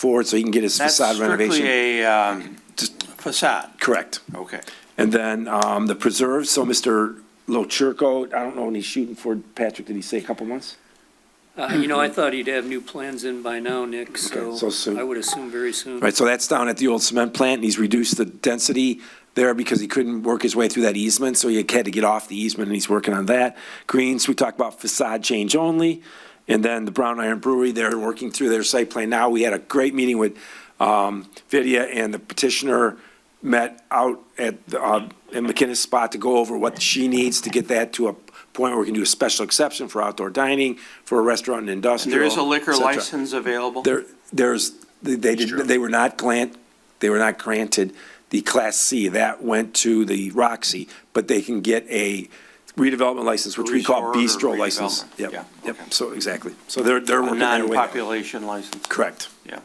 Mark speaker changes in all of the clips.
Speaker 1: forward so he can get his
Speaker 2: That's
Speaker 1: facade renovation.
Speaker 2: strictly a um,
Speaker 1: Just-
Speaker 2: facade,
Speaker 1: Correct.
Speaker 2: okay.
Speaker 1: And then um, the preserve, so Mr. Lochurko, I don't know when he's shooting for, Patrick, did he say a couple months?
Speaker 3: Uh, You know, I thought he'd have new plans in by now, Nick, so
Speaker 1: so soon.
Speaker 3: I would assume very
Speaker 2: Mm-hmm.
Speaker 3: soon.
Speaker 1: Right, so that's down at the old cement plant, and he's reduced the density there because he couldn't work his way through that easement, so he had to get off the easement, and he's working on that. Greens, we talked about facade change only, and then the Brown Iron Brewery, they're working through their site plan now. We had a great meeting with um, Vidya and the petitioner, met out at, uh, in McKinnis spot to go over what she needs to get that to a point where we can do a special exception for outdoor dining, for a restaurant and industrial.
Speaker 2: There is a liquor
Speaker 1: et cetera.
Speaker 2: license available?
Speaker 1: There, there's, they they did, they were not grant, they were not granted the Class C. That went to the Roxy, but they can get a redevelopment license, which we call
Speaker 2: Resort or
Speaker 1: bistro license.
Speaker 2: redevelopment.
Speaker 1: Yep,
Speaker 2: Yeah,
Speaker 1: yep,
Speaker 2: okay.
Speaker 1: so, exactly. So they're, they're
Speaker 2: A
Speaker 1: working their way. down.
Speaker 2: non-population license,
Speaker 1: Correct.
Speaker 2: yeah,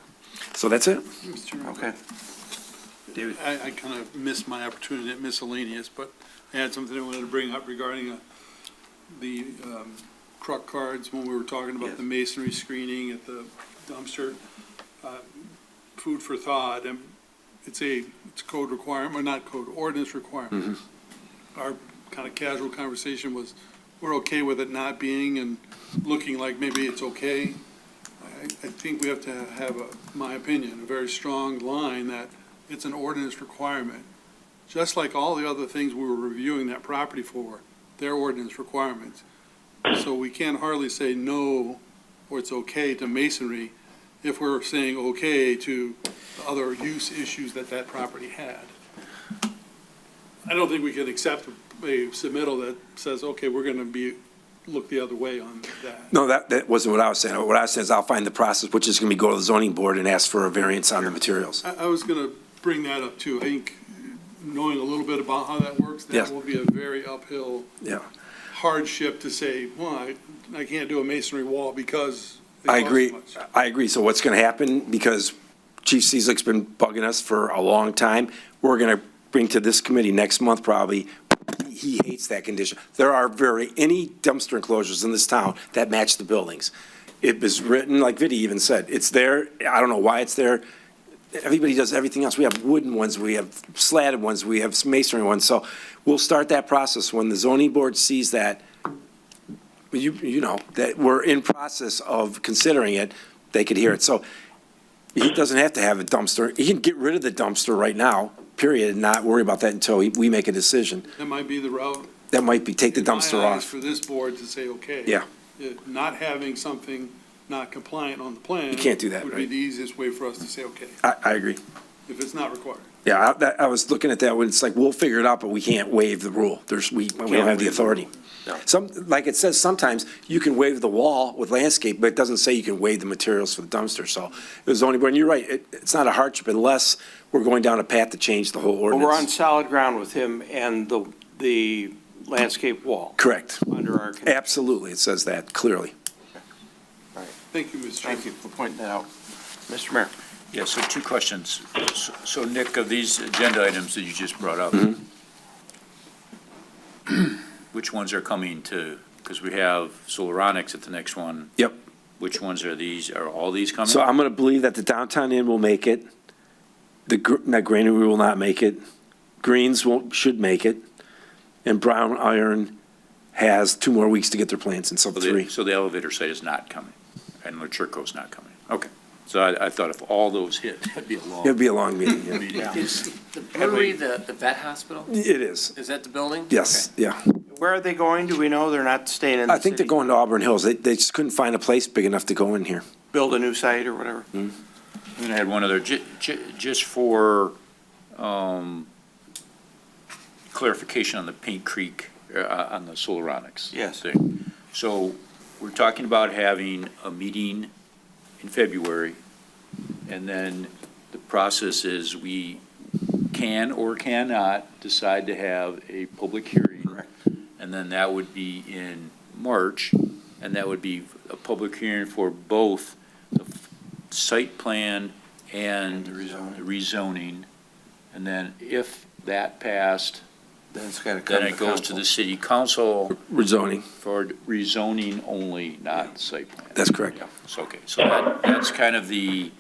Speaker 1: So that's it.
Speaker 2: okay.
Speaker 4: I, I kind of missed my opportunity at miscellaneous, but I had something I wanted to bring up regarding uh, the um, truck cards, when we were talking about
Speaker 2: Yes.
Speaker 4: the masonry screening at the dumpster. Uh, Food for thought, and it's a, it's code requirement, or not code, ordinance requirement. Our kind of casual conversation was, we're okay with it not being and looking like maybe it's okay. I, I think we have to have, a- my opinion, a very strong line that it's an ordinance requirement. Just like all the other things we were reviewing that property for, they're ordinance requirements. So we can hardly say no, or it's okay to masonry, if we're saying okay to the other use issues that that property had. I don't think we can accept a submittal that says, okay, we're gonna be, look the other way on that.
Speaker 1: No, that, that wasn't what I was saying. What I said is I'll find the process, which is gonna be go to the zoning board and ask for a variance on the materials.
Speaker 4: I, I was gonna bring that up too. I think knowing a little bit about how that works,
Speaker 1: Yeah.
Speaker 4: that will be a very uphill
Speaker 1: Yeah.
Speaker 4: hardship to say, well, I, I can't do a masonry wall because. it
Speaker 1: I
Speaker 4: costs
Speaker 1: agree,
Speaker 4: much."
Speaker 1: I agree. So what's going to happen, because Chief Cizik's been bugging us for a long time, we're going to bring to this committee next month probably, he hates that condition. There are very, any dumpster enclosures in this town that match the buildings. It was written, like Vinnie even said, it's there, I don't know why it's there. Everybody does everything else. We have wooden ones, we have slatted ones, we have masonry ones. So we'll start that process when the zoning board sees that, you, you know, that we're in process of considering it, they could hear it. So he doesn't have to have a dumpster. He can get rid of the dumpster right now, period, and not worry about that until we- we make a decision.
Speaker 4: That might be the route.
Speaker 1: That might be, take the
Speaker 4: in my
Speaker 1: dumpster
Speaker 4: eyes,
Speaker 1: off.
Speaker 4: For this board to say, okay.
Speaker 1: Yeah.
Speaker 4: Uh, Not having something not compliant on the plan.
Speaker 1: You can't do that,
Speaker 4: Would be
Speaker 1: right?
Speaker 4: the easiest way for us to say, okay,
Speaker 1: I, I agree.
Speaker 4: if it's not required.
Speaker 1: Yeah, I, that- I was looking at that when it's like, we'll figure it out, but we can't waive the rule. There's, we, we don't have the authority. Some, like it says, sometimes you can waive the wall with landscape, but it doesn't say you can waive the materials for the dumpster. So it was only, and you're right, it, it's not a hardship unless we're going down a path to change the whole
Speaker 2: Well,
Speaker 1: ordinance.
Speaker 2: we're on solid ground with him and the, the landscape wall
Speaker 1: Correct.
Speaker 2: under our, con-
Speaker 1: Absolutely, it says that clearly.
Speaker 4: Thank you, Mr. Chairman.
Speaker 2: thank you for pointing that out. Mr. Mayor?
Speaker 5: Yeah, so two questions. So- So Nick, of these agenda items that you just brought up,
Speaker 1: Mm-hmm.
Speaker 5: which ones are coming to, because we have Solaronics at the next one.
Speaker 1: Yep.
Speaker 5: Which ones are these, are all these coming?
Speaker 1: So I'm going to believe that the downtown inn will make it. The, gr- no, Granary will not make it. Greens won't, should make it. And Brown Iron has two more weeks to get their plans in, so
Speaker 5: So the-
Speaker 1: three.
Speaker 5: So the elevator site is not coming, and Lacherco's not coming. Okay. So I, I thought if all those hit, that'd be a
Speaker 1: It'd
Speaker 5: long
Speaker 1: be a long meeting, yeah.
Speaker 5: meeting.
Speaker 6: Is the brewery the, the vet hospital?
Speaker 1: It is,
Speaker 6: Is that the building?
Speaker 1: yes, yeah.
Speaker 2: Where are they going? Do we know? They're not staying in the
Speaker 1: I think they're
Speaker 2: city?
Speaker 1: going to Auburn Hills. They, they just couldn't find a place big enough to go in here.
Speaker 2: Build a new site or whatever?
Speaker 5: And I had one other, ju- ju- just for, um, clarification on the Paint Creek, uh, on the Solaronics.
Speaker 2: Yes.
Speaker 5: thing. So we're talking about having a meeting in February, and then the process is we can or cannot decide to have a public hearing.
Speaker 2: Correct.
Speaker 5: And then that would be in March, and that would be a public hearing for both the f- site plan
Speaker 2: And
Speaker 5: and
Speaker 2: the rezoning.
Speaker 5: the rezoning. And then if that passed,
Speaker 2: Then it's gotta come
Speaker 5: then it goes to
Speaker 2: council.
Speaker 5: the city council
Speaker 1: Rezoning,
Speaker 5: for rezoning only, not site plan.
Speaker 1: that's correct.
Speaker 5: Yeah, so, okay, so that, that's kind of the